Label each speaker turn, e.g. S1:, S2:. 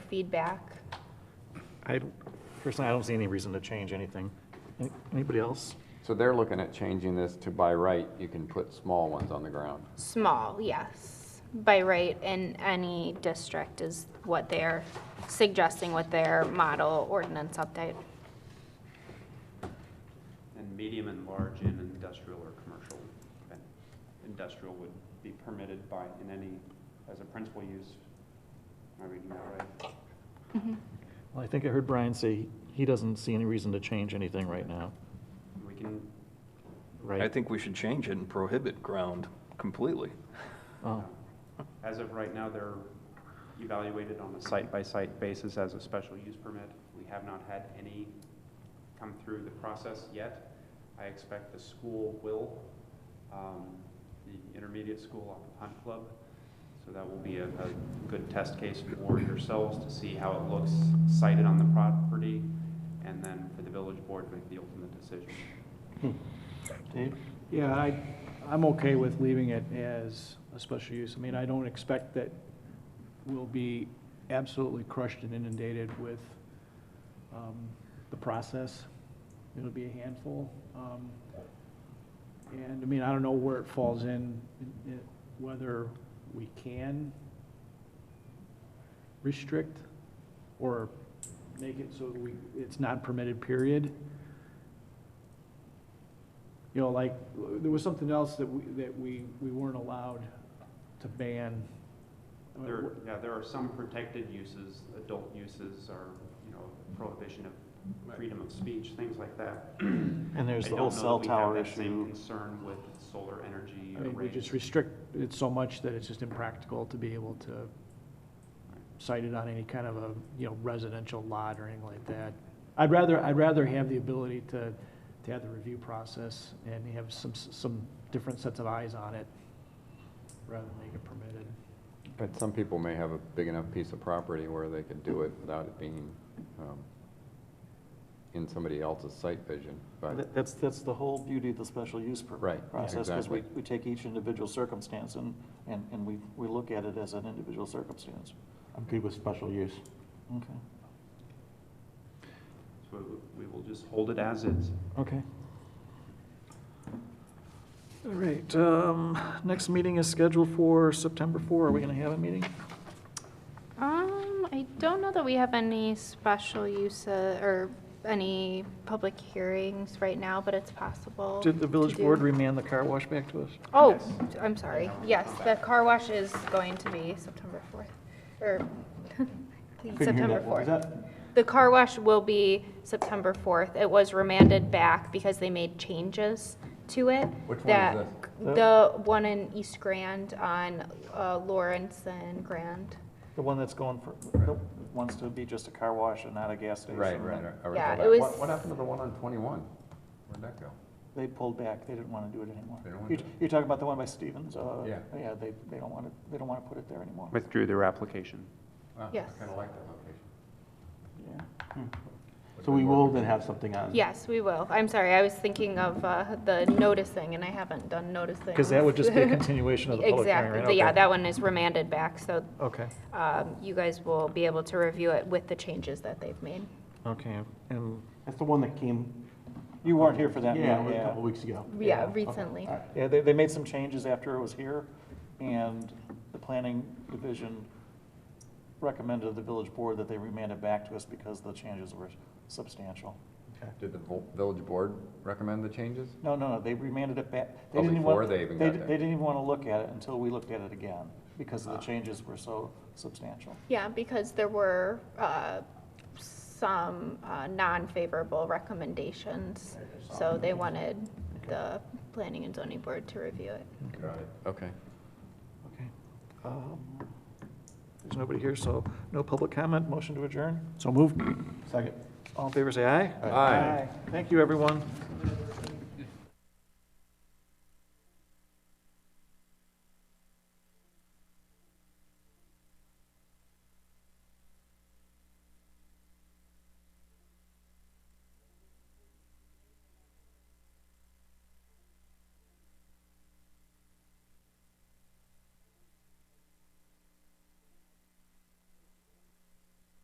S1: feedback.
S2: I, personally, I don't see any reason to change anything. Any- Anybody else?
S3: So they're looking at changing this to by right, you can put small ones on the ground.
S1: Small, yes. By right in any district is what they're suggesting with their model ordinance update.
S4: And medium and large in industrial or commercial. then Industrial would be permitted by, in any, as a principal use. Am I reading that right?
S2: Well, I think I heard Brian say he doesn't see any reason to change anything right now,
S4: We can,
S2: right?
S5: I think we should change it and prohibit ground completely.
S2: Oh,
S4: as of right now, they're evaluated on a site-by-site basis as a special use permit. We have not had any come through the process yet. I expect the school will, um, the intermediate school off of Hunt Club. So that will be a, a good test case for yourselves to see how it looks sited on the property, and then for the village board to make the ultimate decision.
S2: Dave?
S6: Yeah, I, I'm okay with leaving it as a special use. I mean, I don't expect that we'll be absolutely crushed and inundated with um, the process. It'll be a handful. Um, And, I mean, I don't know where it falls in, in- whether we can restrict or make it so we, it's not permitted, period you know, like, there was something else that we, that we, we weren't allowed to ban.
S4: There, yeah, there are some protected uses, adult uses, or, you know, prohibition of freedom of speech, things like that.
S2: And there's the whole cell tower
S4: I don't know that we have that same
S2: issue.
S4: concern with solar energy
S6: I mean, we just
S4: arrays.
S6: restrict it so much that it's just impractical to be able to site it on any kind of a, you know, residential lot or anything like that. I'd rather, I'd rather have the ability to, to have the review process and have some, some different sets of eyes on it, rather than make it permitted.
S3: But some people may have a big enough piece of property where they could do it without it being um, in somebody else's sight vision, but
S2: That- That's, that's the whole beauty of the special use per-
S3: Right,
S2: process, because we, we
S3: exactly.
S2: take each individual circumstance and, and, and we, we look at it as an individual circumstance.
S7: I'm good with special use.
S2: Okay.
S4: So we we will just hold it as is.
S2: Okay. All right, um, next meeting is scheduled for September four. Are we gonna have a meeting?
S1: Um, I don't know that we have any special use uh, or any public hearings right now, but it's possible.
S2: Did the village
S1: to do.
S2: board remand the car wash back to us?
S1: Oh,
S4: Yes.
S1: I'm sorry. Yes, the car wash is going to be September 4th, or September 4th. The car wash will be September 4th. It was remanded back because they made changes to it.
S3: Which one is
S1: that-
S3: this?
S1: The one in East Grand on uh, Lawrence and Grand.
S2: The one that's going for, that wants to be just a car wash and not a gas station.
S3: right, right. I- I recall
S1: Yeah, it
S3: that.
S1: was-
S3: What- What happened to the one on 21? Where'd that go?
S2: They pulled back, they didn't want to do it anymore.
S3: They don't wanna
S2: You-
S3: do it.
S2: You're talking about the one by Stevens, uh,
S3: Yeah.
S2: yeah, they, they don't want to, they don't want to put it there anymore.
S4: Withdrew their application.
S3: Wow, I
S1: Yes.
S3: kinda like that location. Hmm.
S2: Yeah.
S7: So we will then have something
S3: Uh-huh.
S7: on.
S1: Yes, we will. I'm sorry, I was thinking of uh, the noticing, and I haven't done noticing.
S2: Because that would just be a continuation of the public hearing, right?
S1: Exactly. Yeah,
S2: Okay.
S1: that one is remanded back, so
S2: Okay,
S1: um, you guys will be able to review it with the changes that they've made.
S2: okay, and
S7: That's the one that came.
S2: you weren't here for that
S7: Yeah,
S2: meeting,
S7: a
S2: yeah.
S7: couple weeks ago.
S1: Yeah,
S2: okay.
S1: recently.
S7: All right.
S2: Yeah, they, they made some changes after it was here, and the planning division recommended to the village board that they remand it back to us because the changes were substantial.
S3: Did the vo- village board recommend the changes?
S2: No, no, no, they remanded it back. They
S3: Oh,
S2: didn't even
S3: before
S2: want-
S3: they even got there. Ah.
S2: They didn't even want to look at it until we looked at it again, because the changes were so substantial.
S1: Yeah, because there were uh, some uh, non-favorable recommendations, so they wanted the Planning and Zoning Board to review it.
S3: Okay.
S2: Okay. Um, There's nobody here, so no public comment, motion to adjourn?
S6: So moved.
S7: Second.
S2: All in favor, say aye.
S3: Aye.
S2: Thank you, everyone.